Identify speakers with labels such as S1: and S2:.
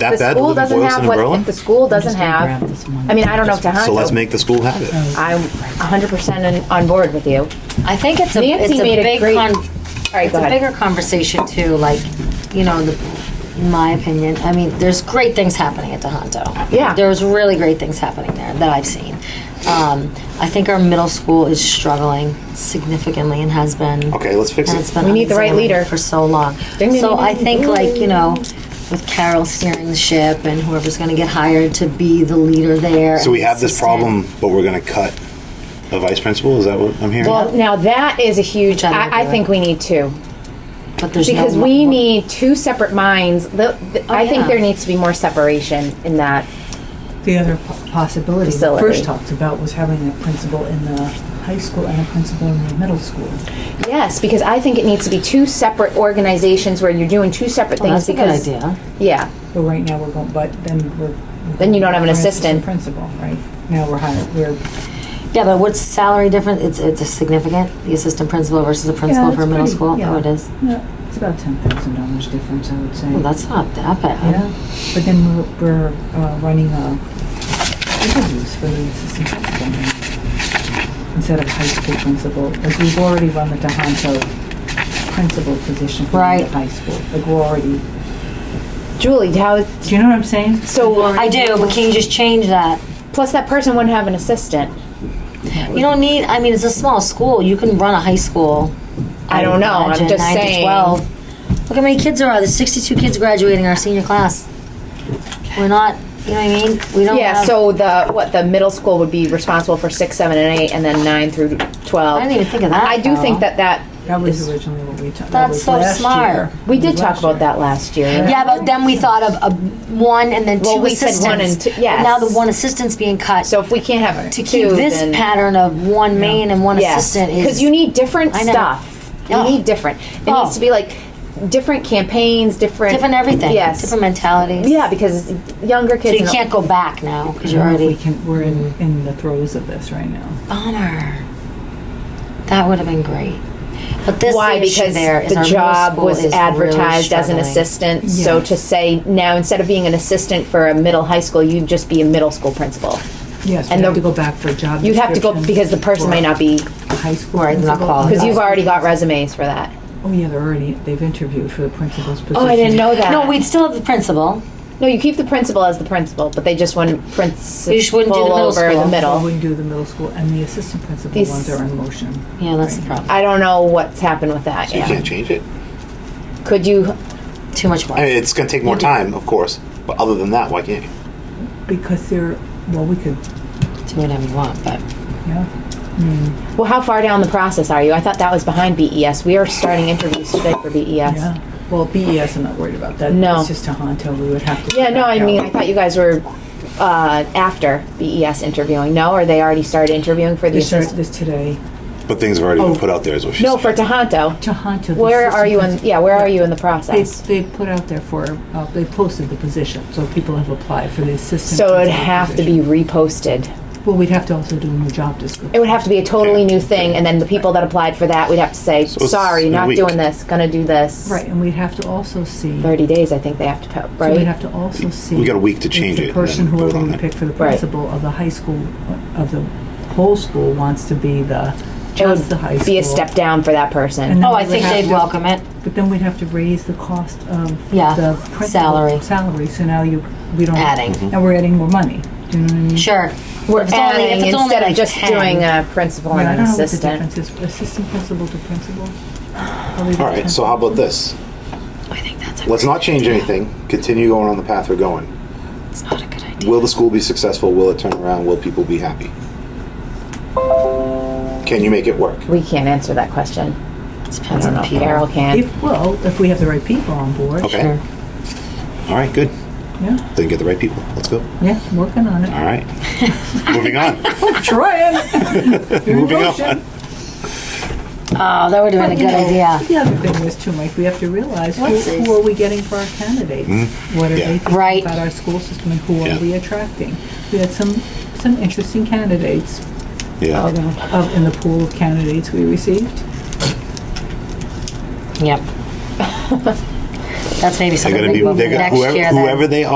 S1: That
S2: the
S1: bad to
S2: school
S1: live in
S2: doesn't
S1: Boylston
S2: have
S1: and
S2: what, if
S1: Berlin?
S2: the school doesn't
S3: just gonna grab
S2: have,
S3: this one.
S2: I mean, I don't know if
S1: So let's
S2: Tohoto,
S1: make the school have it.
S2: I'm hundred percent on, on board with you.
S4: I think it's a,
S2: Nancy
S4: it's a
S2: made a
S4: big,
S2: great-
S4: con-
S2: right,
S4: it's
S2: go
S4: a
S2: ahead.
S4: bigger conversation too, like, you know, the, in my opinion, I mean, there's great things happening at Tohoto.
S2: Yeah.
S4: There's really great things happening there that I've seen. Um, I think our middle school is struggling significantly and has been.
S1: Okay, let's fix
S4: and
S1: it.
S4: it's been
S2: We need the right
S4: unexamined
S2: leader.
S4: For so long.
S2: Ding, ding,
S4: So
S2: ding,
S4: I
S2: ding,
S4: think
S2: ding.
S4: like, you know, with Carol steering the ship and whoever's gonna get hired to be the leader there.
S1: So
S4: and
S1: we
S4: the
S1: have this
S4: assistant.
S1: problem, but we're gonna cut a vice principal? Is that what I'm hearing?
S2: Well, now that is a huge,
S4: Which I don't
S2: I, I
S4: do.
S2: think we need two.
S4: But there's no
S2: Because
S4: mo-
S2: we need two separate minds. The- the- I think
S4: Oh, yeah.
S2: there needs to be more separation in that.
S3: The other po- possibility we
S2: Facility.
S3: first talked about was having a principal in the high school and a principal in the middle school.
S2: Yes, because I think it needs to be two separate organizations where you're doing two separate
S4: Well,
S2: things
S4: Oh, That's a good
S2: because.
S4: idea.
S2: Yeah,
S3: But right now we're going, but then we're.
S2: Then you don't have an
S3: we're
S2: assistant.
S3: Principal, right? Now we're hiring, we're.
S4: Yeah, but what's salary difference? It's it's a significant, the assistant principal versus the principal
S3: Yeah,
S4: for
S3: it's
S4: middle
S3: pretty-
S4: school.
S3: yeah.
S4: Oh, it is.
S3: Yeah, it's about ten thousand dollars difference, I would say.
S4: Well, that's not that bad.
S3: Yeah, but then we're, we're uh, running uh, interviews for the assistant principal now, instead of high school principal. Like we've already run the Tohoto principal position for the
S4: Right.
S3: high school. Like we're already,
S2: Julie, how,
S3: do you know what I'm saying?
S2: so,
S4: I do, but can you just change that?
S2: plus that person wouldn't have an assistant.
S4: You don't need. I mean, it's a small school. You can run a high school.
S2: I don't know, I'm
S4: imagine,
S2: just
S4: nine to
S2: saying.
S4: Twelve. Look how many kids there are. There's 62 kids graduating our senior class. We're not. You know what I mean? We don't.
S2: Yeah,
S4: have,
S2: so the, what, the middle school would be responsible for six, seven, and eight, and then nine through twelve.
S4: I didn't even think of that.
S2: I do think
S4: though.
S2: that that,
S3: That was originally what we talked.
S4: That's so smart.
S2: we did talk about that last year.
S4: Yeah, but then we thought of a one and then two
S2: Well, we said
S4: assistants.
S2: one and two-
S4: But Now the
S2: yes.
S4: one assistant's being cut.
S2: So if we can't have
S4: to
S2: two,
S4: keep this
S2: then-
S4: pattern of one main and one assistant is
S2: because you need different
S4: I know.
S2: stuff. You
S4: Oh.
S2: need different. It
S4: Oh.
S2: needs to be like different campaigns, different
S4: different everything.
S2: Yes,
S4: Different mentalities.
S2: yeah, because younger
S4: So
S2: kids.
S4: you
S2: and-
S4: can't go back now because
S3: You
S4: you're
S3: know, if we
S4: already
S3: can, we're in,
S2: Mm-hmm.
S3: in the throes of this right now.
S4: bummer. That would have been great. But this
S2: Why?
S4: issue
S2: Because
S4: there is our
S2: the
S4: middle
S2: job
S4: school
S2: was
S4: is
S2: advertised
S4: really
S2: as an
S4: struggling.
S2: assistant. So
S3: Yes.
S2: to say now instead of being an assistant for a middle high school, you'd just be a middle school principal.
S3: Yes, we
S2: And
S3: have
S2: the-
S3: to go back for a job
S2: You'd have to go
S3: description
S2: because the person
S3: for
S2: may not be
S3: a High school.
S4: Right, they're not
S3: principal.
S4: qualified.
S2: because you've already got resumes for that.
S3: Oh, yeah, they're already, they've interviewed for the principal's position.
S2: Oh, I didn't know that.
S4: No, we'd still have the principal.
S2: no. You keep the principal as the principal, but they just wouldn't principal
S4: You just wouldn't do the middle
S2: over the
S4: school.
S2: middle.
S3: Well, we can do the middle school and the assistant principal
S2: These-
S3: ones are in motion.
S4: Yeah, that's the problem.
S2: I don't know what's happened with that.
S1: You
S2: yeah.
S1: can't change it.
S2: Could you
S4: Too much work.
S1: I mean, it's gonna take more time, of course, but other than that, why can't you?
S3: Because they're, well, we could,
S4: Do whatever you want,
S2: Oh,
S4: but
S3: yeah.
S2: Well, how far down the process are you? I thought that was behind BES. We are starting interviews today for E BES. Yeah,
S3: Yeah. Well, BES, I'm not worried about that.
S2: No.
S3: It's just Tohoto, we would have to.
S2: no, I
S3: back
S2: mean,
S3: out.
S2: I thought you guys were uh, after BES interviewing. No, or they already started interviewing for the
S3: They started
S2: assistant?
S3: this today.
S1: But things have already
S3: Oh.
S1: been put out there, is what she
S2: No, for
S1: said.
S2: Tohoto.
S3: Tohoto. the
S2: Where are
S3: assistant
S2: you in,
S3: principal-
S2: yeah, where are you in the
S3: They,
S2: process?
S3: they put out there for, uh, they posted the position, so people have applied for the assistant.
S2: So it'd
S3: principal
S2: have to be
S3: position.
S2: reposted.
S3: Well, we'd have to also do a new job description.
S2: It would have to be a totally new thing, and then the people that applied for that, we'd have to say,
S1: So it's
S2: sorry,
S1: in a
S2: not
S1: week.
S2: doing this, gonna do this.
S3: Right, and we'd have to also see.
S2: Thirty days, I think they have to, po-
S3: So we have
S2: right?
S3: to also see.
S1: got a week to
S3: if
S1: change it
S3: The
S1: and
S3: person,
S1: then vote
S3: whoever
S1: on
S3: we
S1: it.
S3: pick for the
S2: Right.
S3: principal of the high school, of the whole school, wants to be the,
S2: It
S3: just the high
S2: would
S3: school.
S2: be a step down for that person.
S3: And then
S4: oh, I
S3: we would
S4: think
S3: have
S4: they'd
S3: to-
S4: welcome it.
S3: But then we'd have to raise the cost of
S4: Yeah,
S3: the principal.
S4: salary.
S3: Salary, so now you, we don't.
S4: Adding.
S1: Mm-hmm.
S3: And we're adding more money. Do you know what I mean?
S4: Sure.
S2: We're
S4: If it's only- if
S2: adding
S4: it's only
S2: instead
S4: like
S2: of just
S4: 10.
S2: doing a principal
S3: But I
S2: and an
S3: don't know what the
S2: assistant.
S3: difference is, assistant principal to principal.
S1: All right, so how about this?
S4: I think that's a,
S1: Let's not change anything. Continue going on the path we're going.
S4: it's not a good idea.
S1: Will the school be successful? Will it turn around? Will people be happy? Can you make it work?
S2: We can't answer that question. I don't
S4: Depends on
S2: know.
S4: people.
S2: Carol can.
S3: If, well, if we have the right people on board.
S1: Okay.
S4: Sure.
S1: All right, good.
S3: Yeah,
S1: Then get the right people. Let's go.
S3: yeah, working on it.
S1: All right. Moving on.
S3: Trying.
S1: Moving
S3: motion.
S1: on.
S4: Oh, that would have been a good idea.
S3: The other thing was too, Mike, we have to realize who, who are we getting for our candidates? What
S1: Hmm?
S3: are
S1: Yeah.
S3: they thinking
S4: Right.
S3: about our school system and who
S1: Yeah.
S3: are we attracting? We had some, some interesting candidates
S1: Yeah.
S3: of, of- in the pool of candidates we received.
S4: Yep. That's maybe
S1: They're
S4: something
S1: gonna
S4: we
S1: be.
S4: go for
S1: They're gonna,
S4: next
S1: whoever,
S4: year then.
S1: whoever they are.